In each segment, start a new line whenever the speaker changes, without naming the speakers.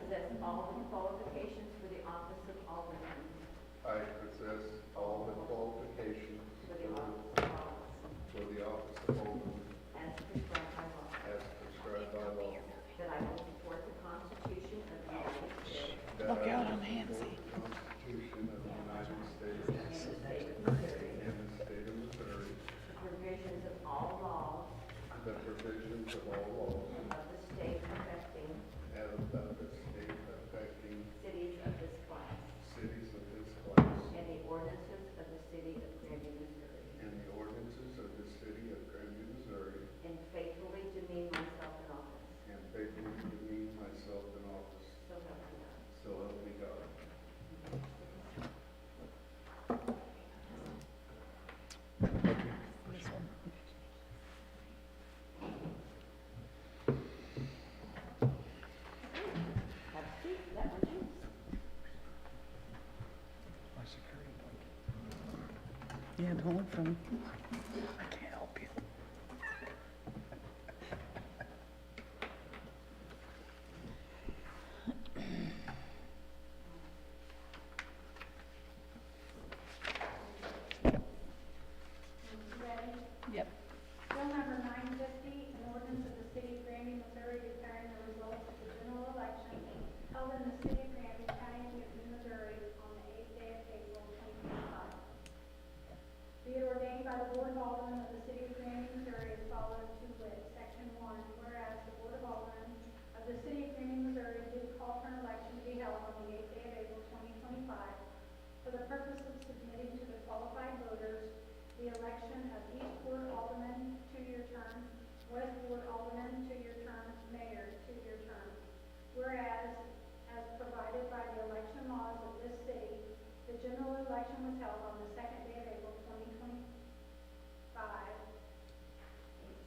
Alderman qualifications for the office of Alderman,
I possess all the qualifications
for the office of Alderman,
for the office of Alderman
as prescribed by law.
as prescribed by law.
That I will support the Constitution of the United States
Look out, I'm Hansie. Constitution of the United States
and the state of Missouri,
and the state of Missouri,
the provisions of all laws
the provisions of all laws
of the state affecting
and of the state affecting
cities of this class,
cities of this class
and the ordinances of the city of Grandview, Missouri,
and the ordinances of the city of Grandview, Missouri,
and faithfully demean myself in office,
and faithfully demean myself in office.
so help me God.
So help me God.
Have a seat, that one's yours.
Yeah, don't look for me. I can't help you.
Ready?
Yep.
Bill number nine fifty, an ordinance of the city of Granby, Missouri declaring the results of the general election held in the city of Granby, County of Newton, Missouri on the eighth day of April twenty twenty-five. Be it ordained by the Board of Aldermen of the city of Granby, Missouri as follows to wit, section one, whereas the Board of Aldermen of the city of Granby, Missouri do call for an election to be held on the eighth day of April twenty twenty-five for the purpose of submitting to the qualified voters the election of East Ward Alderman, two-year term, West Ward Alderman, two-year term, Mayor, two-year term. Whereas, as provided by the election laws of this city, the general election was held on the second day of April twenty twenty-five.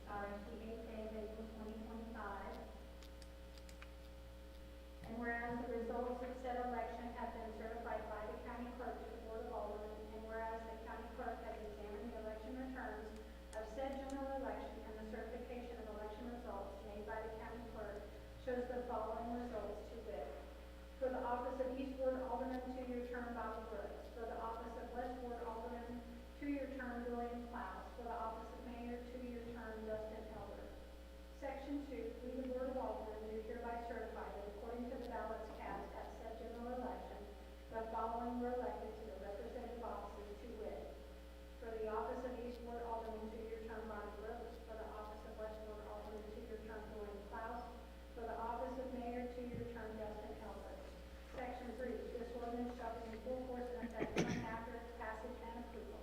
Sorry, the eighth day of April twenty twenty-five. And whereas the results of said election have been certified by the county clerk to the Board of Aldermen, and whereas the county clerk has examined the election returns of said general election and the certification of election results made by the county clerk shows the following results to wit. For the office of East Ward Alderman, two-year term, Bobby Brooks. For the office of West Ward Alderman, two-year term, William Klaus. For the office of Mayor, two-year term, Dustin Elder. Section two, we, the Board of Aldermen, do hereby certify that according to the ballots cast at said general election, the following were elected to the representative offices to wit. For the office of East Ward Alderman, two-year term, Bonnie Brooks. For the office of West Ward Alderman, two-year term, Dwayne Klaus. For the office of Mayor, two-year term, Justin Elder. Section three, this ordinance shall be in full force and effect soon after its passage and approval.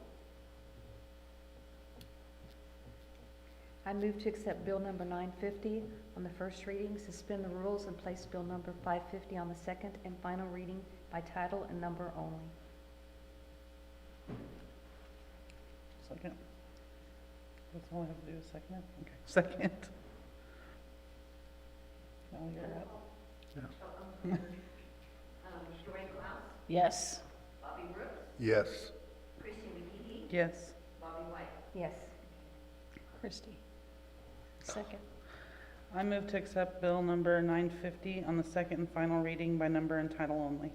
I move to accept Bill number 950 on the first reading, suspend the rules, and place Bill number 550 on the second and final reading by title and number only.
Second. That's all I have to do is second it? Okay, second. Now you're up.
Um, Dwayne Klaus,
Yes.
Bobby Brooks,
Yes.
Christie McGee,
Yes.
Bobby White.
Yes. Christie. Second.
I move to accept bill number nine fifty on the second and final reading by number and title only.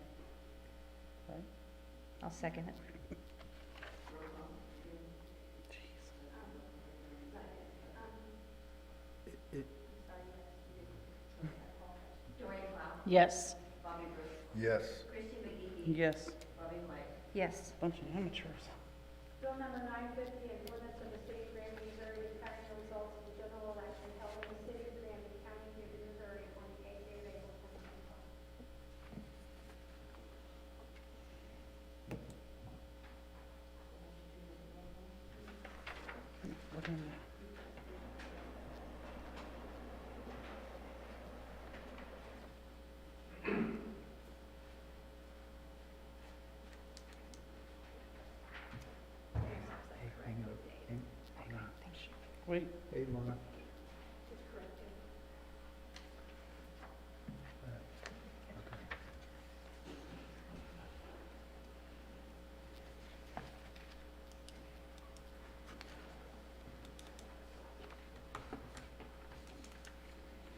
I'll second it.
Dwayne Klaus,
Yes.
Bobby Brooks,
Yes.
Christie McGee,
Yes.
Bobby White.
Yes.
Bunch of amateurs.
Bill number nine fifty, an ordinance of the city of Granby, Missouri declaring the results of the general election held in the city of Granby, County of Newton, Missouri on the eighth day of April twenty twenty-five.
Look in there. Wait,
Hey, Mona.